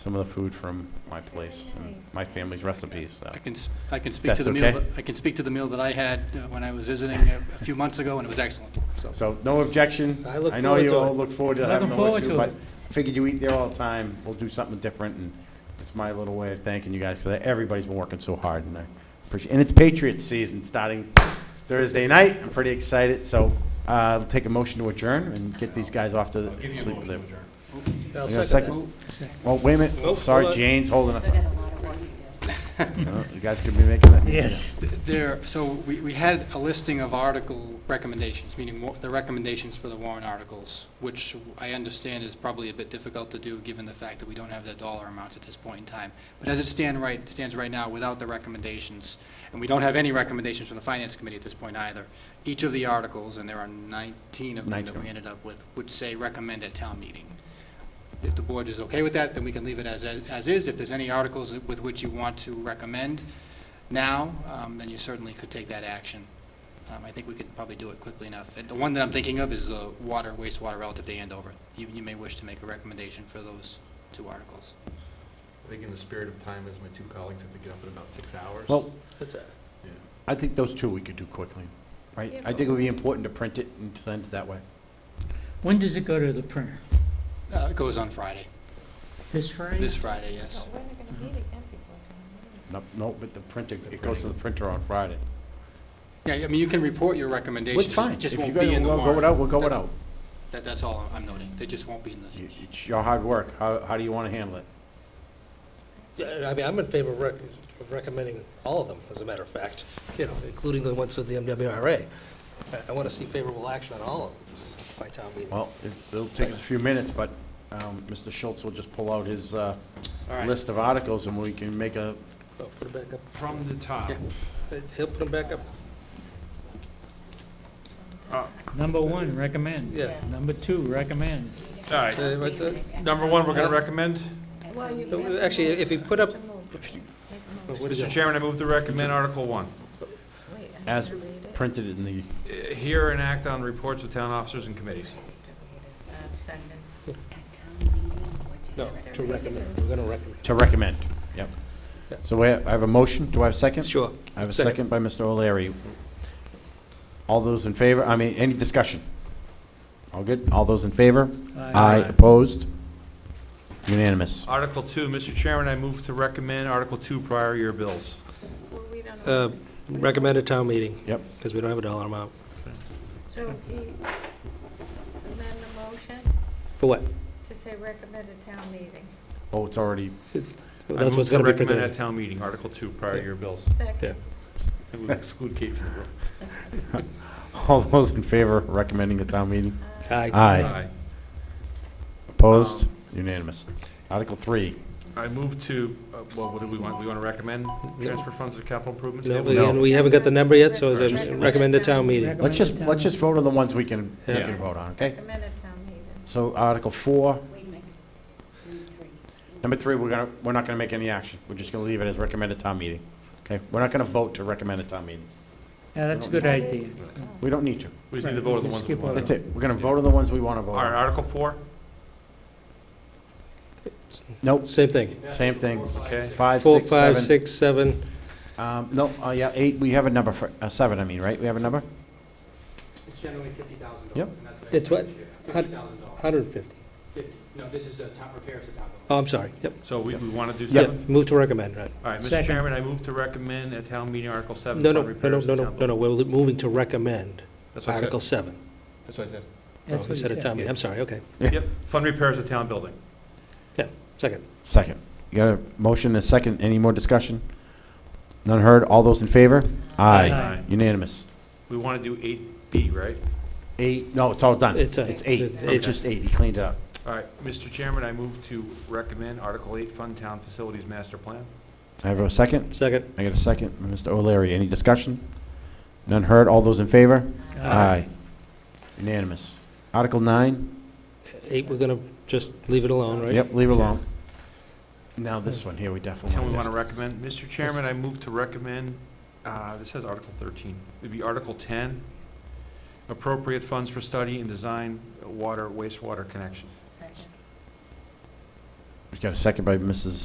some of the food from my place and my family's recipes, so. I can, s- I can speak to That's the meal, okay. that- I can speak to the meal that I had uh, when I was visiting a a few months ago, and it was excellent, so. So, no objection. I look know forward you to all it. look forward to Looking having the forward issue, to but it. I figured you eat there all the time. We'll do something different, and it's my little way of thanking you guys, so that everybody's been working so hard, and I appreciate, and it's Patriots season starting Thursday night. I'm pretty excited, so, uh, I'll take a motion to adjourn and get these guys off to sleep. with their- I'll You got a second second? Well, wait a minute. Nope, Sorry, hold on. Jane's holding up. Still got a lot of work to do. No, You guys could be making that. that. Yes. There, so we, we had a listing of article recommendations, meaning wa- the recommendations for the warrant articles, which I understand is probably a bit difficult to do, given the fact that we don't have the dollar amounts at this point in time. But as it stand right, stands right now, without the recommendations, and we don't have any recommendations from the Finance Committee at this point either, each of the articles, and there are 19 of them that 19. we ended up with, would say recommend at town meeting. If the board is okay with that, then we can leave it as, as is. If there's any articles with which you want to recommend now, um, then you certainly could take that action. Um, I think we could probably do it quickly enough. And the one that I'm thinking of is the water, wastewater relative to Andover. You, you may wish to make a recommendation for those two articles. I think in the spirit of time, as my two colleagues have to get up in about six hours. Well, That's it. Yeah. I think those two we could do quickly, right? I think it would be important to print it and send it that way. When does it go to the printer? Uh, it goes on Friday, This Friday? this Friday, yes. But Oh, we're not gonna meet again before town No, no, but the printer, it goes to the printer on Friday. Yeah, I mean, you can report your recommendations. It's fine. It just If you won't guys be in the will warrant. Go without, we'll go That's- without. That, that's all I'm noting. They just won't be in the, You- It's your hard work. How, how do you want to handle it? Yeah, I mean, I'm in favor of rec- of recommending all of them, as a matter of fact, you know, including the ones with the MWRA. I- I want to see favorable action on all of them by town meeting. Well, it- it'll take us a few minutes, but um, Mr. Schultz will just pull out his uh, all right. list of articles and we can make a, Oh, Put it back up. From the top. Yeah. He'll put them back up, Number one, recommend. yeah. Number two, recommend. All right, Uh, what's that? number one, we're going to recommend. meeting. Well, you No, have to actually, move. if you put up- To move. Make a But motion. what do you Mr. got? Chairman, I move to recommend Article One. Wait, I have as to read it. printed in the, Uh, Hear and act on reports of town officers and committees. Uh, Second. Yeah. At town meeting, what No, you to said. recommend, we're going to recommend. to recommend. Yep. Yeah. So we have- I have a motion. Do I have a second? Sure. I have a Second. second by Mr. O'Leary. All those in favor, I mean, any discussion? All good? All those in favor? Aye. Opposed? Unanimous. Article Two, Mr. Chairman, I move to recommend Article Two, prior year bills. Well, we don't know. Uh, Recommended town meeting, Yep. because we don't have a dollar amount. So he amend the motion For what? to say recommended town meeting. Oh, it's already, That's what's going to be I move to recommend at presented. town meeting, Article Two, prior year bills. Second. I would exclude Kate from the room. all those in favor of recommending a town meeting? Aye. Aye. Opposed? Unanimous. Article three. I move to, uh, well, what do we want? We want to recommend transfer funds to capital improvements? No, table? we- and we haven't got the number yet, so it's a Recommended. recommended town meeting. Let's just, let's just vote on the ones we can, we Yeah. can vote on, okay? Recommended town meeting. So Article four, Wait a minute. Number three. number three, we're gonna, we're not gonna make any action. We're just gonna leave it as recommended town meeting, okay? We're not gonna vote to recommend a town meeting. Yeah, that's a good idea. We don't need to. We just need to vote on the ones we Skip want. That's it. We're gonna vote on the ones we wanna vote All right, on. Article Four? Nope, Same thing. same thing. Okay. Five, Four, six, five, seven. six, seven, Um, no, oh, yeah, eight, we have a number for, uh, seven, I mean, right? We have a number? It's generally fifty thousand Yep. That's what- Fifty thousand dollars. 150. No, this is a top repairs to town. Oh, I'm sorry, yep. So we, we want to do Yeah, seven? move to recommend, right. All right, Mr. Second. Chairman, I move to recommend at town meeting Article 7. No, no, fund no, no, repairs no, to no, town no, no, we're moving to recommend, buildings. That's what I said. Article 7. That's what I said. That's Oh, what you said he it, said. Tommy, I'm sorry, okay. Yep, fund repairs of town building. Second. Second. You got a motion and a second. Any more discussion? None heard. All those in favor? Aye. Unanimous. We want to do 8B, right? Eight, no, it's all done. It's a- It's eight. it's- It's just eight. He cleaned it up. All right, Mr. Chairman, I move to recommend Article 8, fund town facilities master plan. I have a second. Second, I got a second. Mr. O'Leary, any discussion? None heard. All those in favor? Unanimous. Article nine? eight, we're going to just leave it alone, right? Yep, leave it alone. Now this one here, we definitely Tell me want we to. want to recommend. Mr. Chairman, I move to recommend, uh, this says Article 13. It'd be Article 10, appropriate funds for study and design water wastewater connection. Second. We've got a second by Mrs.